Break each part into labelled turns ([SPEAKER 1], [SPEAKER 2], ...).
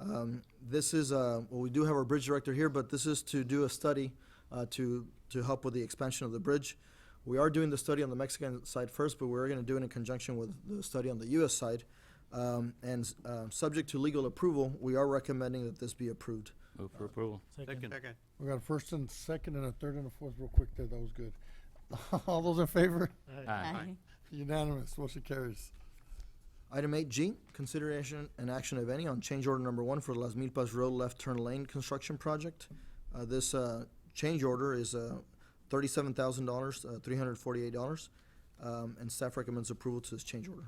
[SPEAKER 1] Um, This is, uh, well, we do have our bridge director here, but this is to do a study uh, to, to help with the expansion of the bridge. We are doing the study on the Mexican side first, but we're going to do it in conjunction with the study on the US side. Um, And uh, subject to legal approval, we are recommending that this be approved.
[SPEAKER 2] Move for approval.
[SPEAKER 3] Second.
[SPEAKER 4] Second.
[SPEAKER 5] We got a first and second and a third and a fourth real quick there. That was good. All those in favor?
[SPEAKER 4] Aye.
[SPEAKER 5] Unanimous. Motion carries.
[SPEAKER 1] Item eight G, consideration and action, if any, on change order number one for Las Milpas Road Left Turn Lane Construction Project. Uh, this, uh, change order is, uh, thirty-seven thousand dollars, uh, three hundred forty-eight dollars. Um, and staff recommends approval to this change order.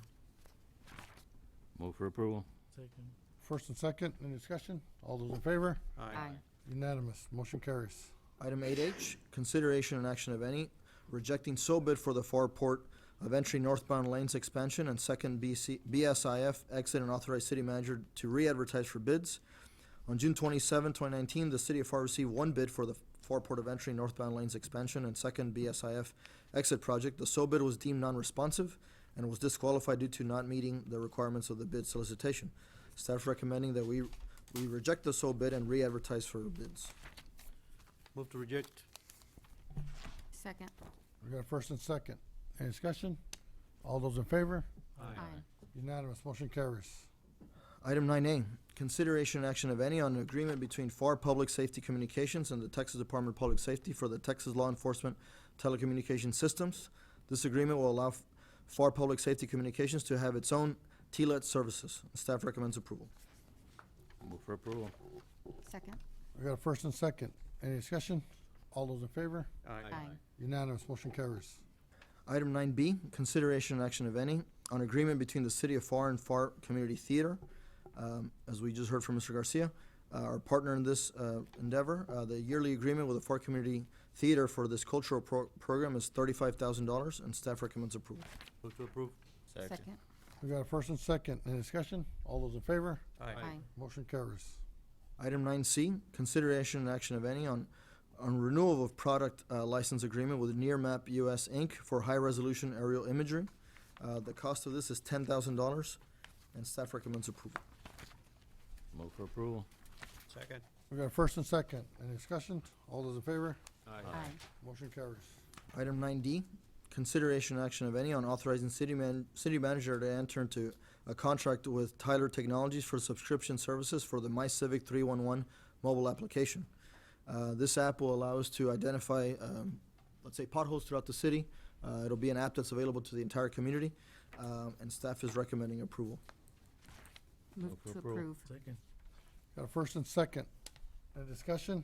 [SPEAKER 2] Move for approval.
[SPEAKER 3] Second.
[SPEAKER 5] First and second, any discussion? All those in favor?
[SPEAKER 4] Aye.
[SPEAKER 5] Unanimous. Motion carries.
[SPEAKER 1] Item eight H, consideration and action, if any, rejecting so bid for the far port of entry northbound lanes expansion and second BC, BSIF exit and authorize city manager to re-advertise for bids. On June 27, 2019, the city of FAR received one bid for the far port of entry northbound lanes expansion and second BSIF exit project. The so bid was deemed non-responsive and was disqualified due to not meeting the requirements of the bid solicitation. Staff recommending that we, we reject the so bid and re-advertise for bids.
[SPEAKER 4] Move to reject.
[SPEAKER 6] Second.
[SPEAKER 5] We got a first and second. Any discussion? All those in favor?
[SPEAKER 6] Aye.
[SPEAKER 5] Unanimous. Motion carries.
[SPEAKER 1] Item nine A, consideration and action of any on an agreement between FAR Public Safety Communications and the Texas Department of Public Safety for the Texas Law Enforcement Telecommunications Systems. This agreement will allow F- FAR Public Safety Communications to have its own TLET services. Staff recommends approval.
[SPEAKER 2] Move for approval.
[SPEAKER 6] Second.
[SPEAKER 5] We got a first and second. Any discussion? All those in favor?
[SPEAKER 6] Aye.
[SPEAKER 5] Unanimous. Motion carries.
[SPEAKER 1] Item nine B, consideration and action of any on agreement between the City of FAR and FAR Community Theater. Um, as we just heard from Mr. Garcia, uh, our partner in this, uh, endeavor, uh, the yearly agreement with the FAR Community Theater for this cultural pro- program is thirty-five thousand dollars and staff recommends approval.
[SPEAKER 4] Move to approve.
[SPEAKER 6] Second.
[SPEAKER 5] We got a first and second. Any discussion? All those in favor?
[SPEAKER 6] Aye.
[SPEAKER 5] Motion carries.
[SPEAKER 1] Item nine C, consideration and action of any on, on renewal of product uh, license agreement with Near Map US Inc. for high-resolution aerial imagery. Uh, the cost of this is ten thousand dollars and staff recommends approval.
[SPEAKER 2] Move for approval.
[SPEAKER 4] Second.
[SPEAKER 5] We got a first and second. Any discussion? All those in favor?
[SPEAKER 6] Aye.
[SPEAKER 5] Motion carries.
[SPEAKER 1] Item nine D, consideration and action of any on authorizing city man, city manager to enter into a contract with Tyler Technologies for subscription services for the My Civic three one one mobile application. Uh, this app will allow us to identify, um, let's say potholes throughout the city. Uh, it'll be an app that's available to the entire community, um, and staff is recommending approval.
[SPEAKER 6] Move
[SPEAKER 2] for
[SPEAKER 6] to
[SPEAKER 2] approval.
[SPEAKER 6] approve.
[SPEAKER 3] Second.
[SPEAKER 5] Got a first and second. Any discussion?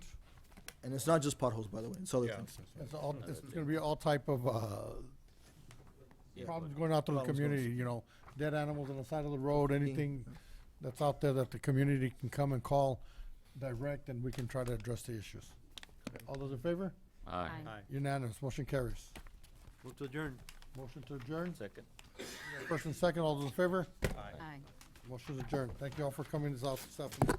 [SPEAKER 1] And it's not just potholes, by the way, it's other
[SPEAKER 4] Yeah.
[SPEAKER 1] things.
[SPEAKER 5] It's all, it's gonna be all type of, uh, problems going out to the
[SPEAKER 1] Problems going-
[SPEAKER 5] community, you know, dead animals on the side of the road, anything that's out there that the community can come and call direct, and we can try to address the issues. All those in favor?
[SPEAKER 2] Aye.
[SPEAKER 4] Aye.
[SPEAKER 5] Unanimous, motion carries.
[SPEAKER 4] Move to adjourn.
[SPEAKER 5] Motion to adjourn,
[SPEAKER 2] Second.
[SPEAKER 5] first and second, all those in favor?
[SPEAKER 6] Aye.
[SPEAKER 5] Motion is adjourned. Thank you all for coming this out this afternoon.